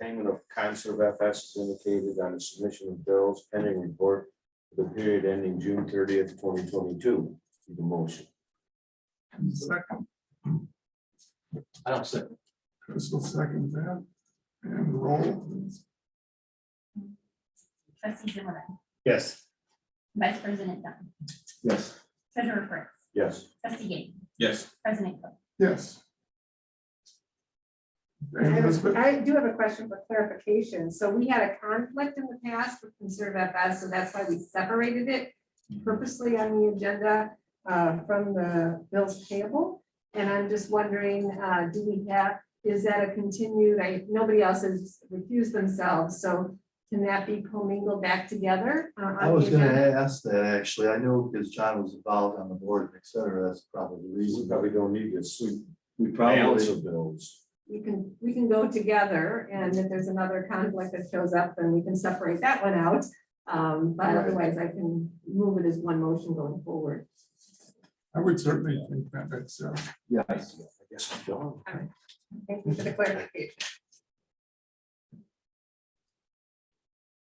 payment of Conserve FS is indicated on the submission of bills pending report for the period ending June thirtieth, twenty twenty-two. The motion. Second, I don't see. Chris will second that. And roll, please. Trustee Zimmerman, Yes. Vice President Dunn, Yes. Treasurer Prince, Yes. Trustee Gayton, Yes. President Cook. Yes. I And have a- Elizabeth, I do have a question for clarification. So we had a conflict in the past with Conserve FS, so that's why we separated it purposely on the agenda uh, from the bills payable. And I'm just wondering, uh, do we have, is that a continued, I, nobody else has refused themselves, so can that be commingled back together? uh, on I was the gonna agenda? ask that, actually. I know because John was involved on the board, et cetera. That's probably the We reason. probably don't need this. We- We Balance probably, of bills. We can, we can go together, and if there's another conflict that shows up, then we can separate that one out. Um, but Right. otherwise, I can move it as one motion going forward. I would certainly think that that's, uh, yes. I guess we don't. Thank you for the clarification.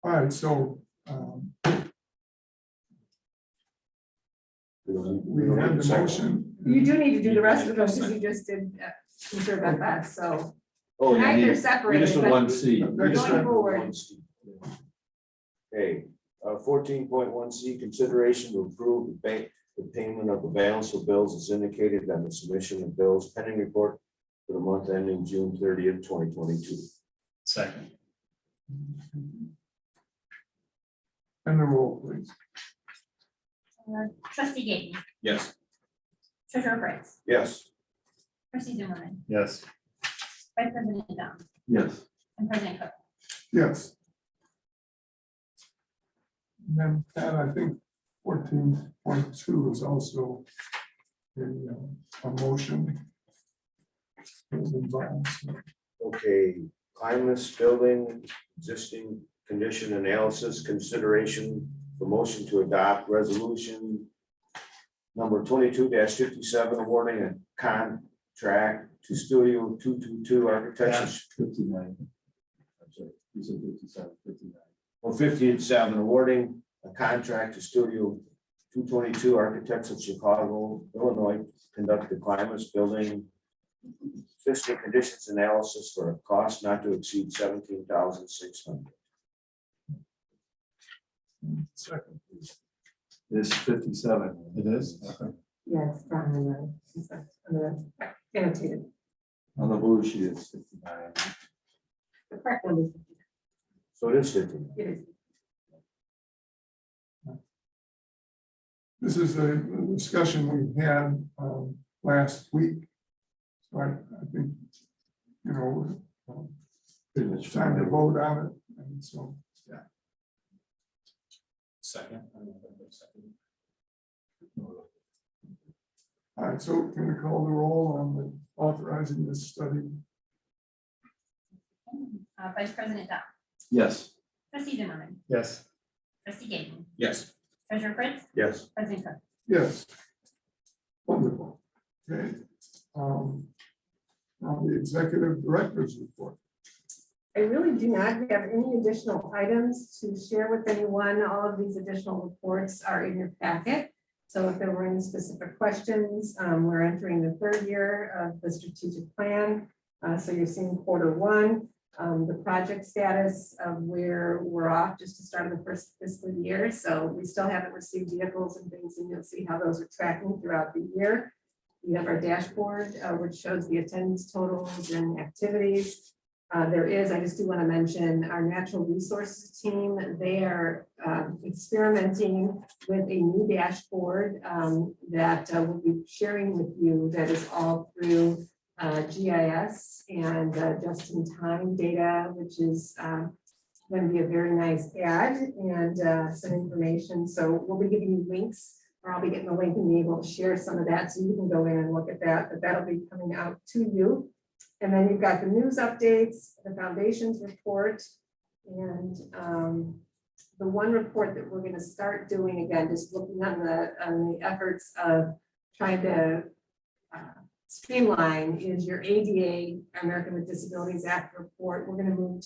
all right, so, um, We don't need- we we don't had need a the second. motion. You do need to do the rest of them, because you just did uh, conserve FS, so Oh, you tonight they're need, you just separated, need but one C. We just going had- forward, Okay, uh, fourteen point one C, consideration to approve the bank, the payment of the balance of bills is indicated on the submission of bills pending report for the month ending June thirtieth, twenty twenty-two. Second. And the roll, please. Uh, Trustee Gayton, Yes. Treasurer Prince, Yes, Trustee Zimmerman, Yes. Vice President Dunn, Yes. and President Cook. Yes. And Then, Pat, I think fourteen point two is also a, uh, a motion. It was involved, so okay, climate's building, existing condition analysis, consideration for motion to adopt resolution number twenty-two fifty-seven, awarding a contract to Studio two-two-two Architects. Fifty-nine. I'm sorry. You said fifty-seven, fifty-nine. One fifty and seven, awarding a contract to Studio two twenty-two Architects of Chicago, Illinois, to conduct the climate's building fiscal conditions analysis for a cost not to exceed seventeen thousand six hundred. Second, please. It's fifty-seven. It is? yes, down in the- it's, uh, in the annotated, On the blue sheet, it's fifty-nine. the correct one is, So it is fifteen. it is. This is a discussion we had um, last week. So I, I think, you know, um, Pretty much. it's time to vote on it, and so. Second. All right, so can we call the roll on the authorizing this study? Uh, Vice President Dunn, Yes. Trustee Zimmerman, Yes. Trustee Gayton, Yes. Treasurer Prince, Yes. President Cook. Yes. Wonderful. Okay. um, Now the executive director's report. I really do not have any additional items to share with anyone. All of these additional reports are in your packet. So if there were any specific questions, um, we're entering the third year of the strategic plan. Uh, so you're seeing quarter one, um, the project status of where we're off just to start the first fiscal year. So we still haven't received vehicles and things, and you'll see how those are tracking throughout the year. We have our dashboard, uh, which shows the attendance totals and activities. Uh, there is, I just do want to mention, our natural resources team, they are um, experimenting with a new dashboard um, that uh, we'll be sharing with you that is all through uh, GIS and uh, just-in-time data, which is going to be a very nice ad and uh, some information. So we'll be giving you links, or I'll be getting a link and be able to share some of that, so you can go in and look at that, but that'll be coming out to you. And then you've got the news updates, the foundations report, and um, the one report that we're gonna start doing again, just looking on the, on the efforts of trying to uh, streamline is your ADA, American with Disabilities Act report. We're gonna move